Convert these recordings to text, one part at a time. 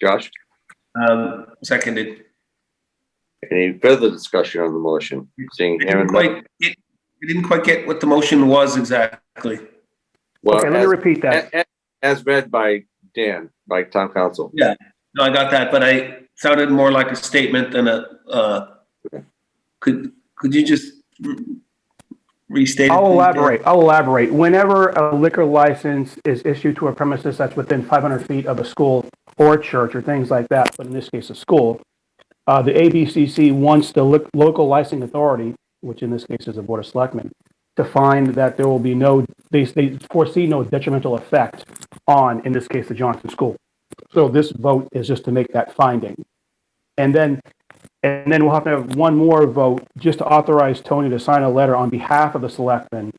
Josh, Um, seconded. any further discussion on the motion? Seeing I Aaron, didn't quite, get- I didn't quite get what the motion was exactly. well, Okay, let me as- repeat that. a- a- as read by Dan, by town council. No, I got that, but I sounded more like a statement than a, uh, could, could you just re- restate? it, I'll please, Dan? elaborate, I'll elaborate. Whenever a liquor license is issued to a premises that's within 500 feet of a school or church or things like that, but in this case, a school, uh, the ABCC wants the lic- local licensing authority, which in this case is the Board of Selectmen, to find that there will be no, they, they foresee no detrimental effect on, in this case, the Johnson School. So this vote is just to make that finding. And then and then we'll have to have one more vote just to authorize Tony to sign a letter on behalf of the selectmen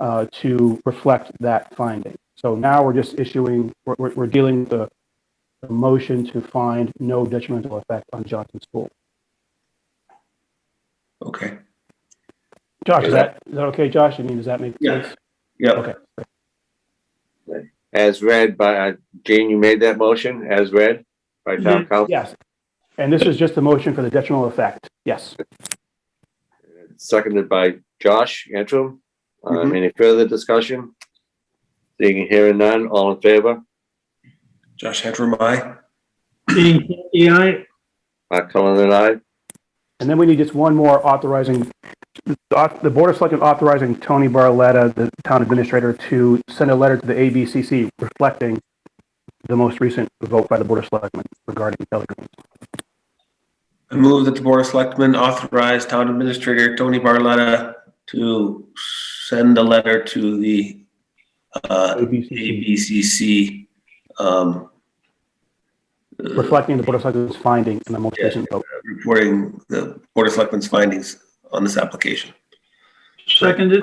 uh, to reflect that finding. So now we're just issuing, we're, we're- we're dealing with the, the motion to find no detrimental effect on Johnson School. Okay, Josh, is that, is that okay, Josh? I mean, does that make Yeah. sense? yeah, Okay. As read by, uh, Jane, you made that motion, as read by town council. Yes. And this is just a motion for the detrimental effect. Yes. Seconded by Josh Antrim. Um, Mhm. any further discussion? Seeing and hearing none, all in favor? Josh Antrim, aye. Dean Canty, aye. Mark Cullen and I. And then we need just one more authorizing, the Board of Selectmen authorizing Tony Barletta, the town administrator, to send a letter to the ABCC reflecting the most recent vote by the Board of Selectmen regarding telegrams. I move that the Board of Selectmen authorize Town Administrator Tony Barletta to send a letter to the uh, ABCC, ABCC um, uh, reflecting the Board of Selectmen's finding in the most Yeah. recent vote. reporting the Board of Selectmen's findings on this application. Seconded.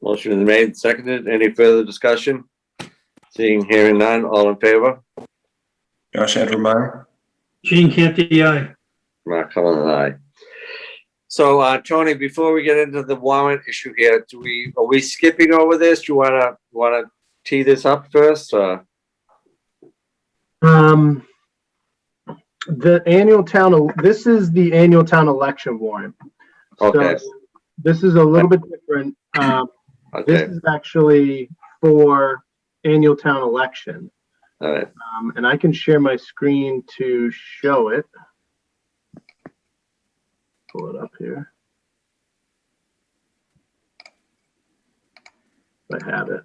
Motion is made, and seconded. Any further discussion? Seeing and hearing none, all in favor? Josh Antrim, Gene Canty, aye. Mark Cullen and I. So, uh, Tony, before we get into the warrant issue here, do we, are we skipping over this? Do you wanna, wanna tee this up first, uh? Um, the annual town, this is the annual town election warrant. So Okay. This is a little bit different. Um, this Okay, is actually for annual town election. all right. Um, and I can share my screen to show it. Pull it up here. If I have it.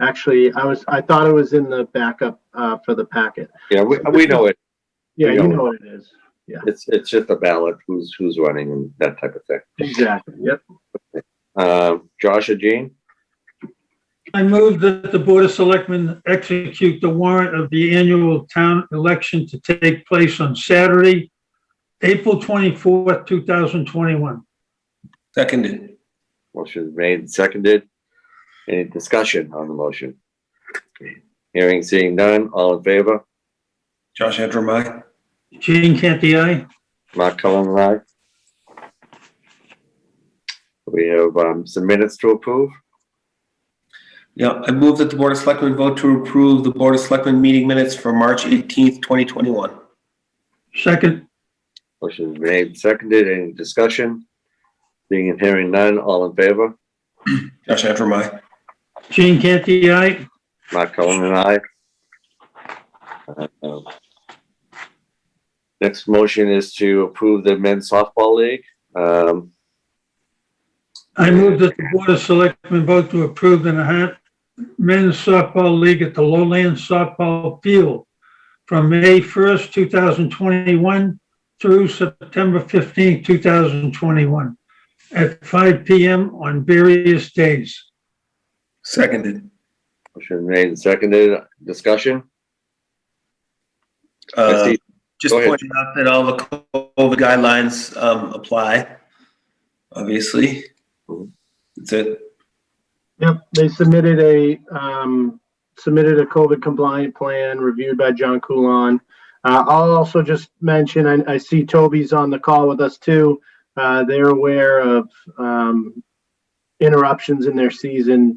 Actually, I was, I thought it was in the backup, uh, for the packet. Yeah, we, we know it. Yeah, Yeah. you know what it is. It's, it's just a ballot, who's, who's running and that type of thing. Exactly, yep. Um, Josh or Jean? I move that the Board of Selectmen execute the warrant of the annual town election to take place on Saturday, April twenty-fourth, two thousand twenty-one. seconded. Motion is made and seconded. Any discussion on the motion? Hearing, seeing none, all in favor? Josh Antrim, aye. Gene Canty, aye. Mark Cullen, and I. We have, um, some minutes to approve. Yeah, I move that the Board of Selectmen vote to approve the Board of Selectmen meeting minutes for March 18th, 2021. Second. Motion is made and seconded. Any discussion? Seeing and hearing none, all in favor? Josh Antrim, aye. Gene Canty, aye. Mark Cullen and I. Uh, Next motion is to approve the men's softball league. Um, I move that the Board of Selectmen vote to approve the Nahat Men's Softball League at the Lowland Softball Field from May first, two thousand twenty-one through September fifteenth, two thousand twenty-one at five PM on various days. Seconded. motion made and seconded. Discussion? I Uh, see. Just Go ahead. pointing out that all the COVID guidelines um, apply, obviously. Mhm. That's it. Yep, they submitted a, um, submitted a COVID compliant plan reviewed by John Coulon. Uh, I'll also just mention, I, I see Toby's on the call with us too. Uh, they're aware of, um, interruptions in their season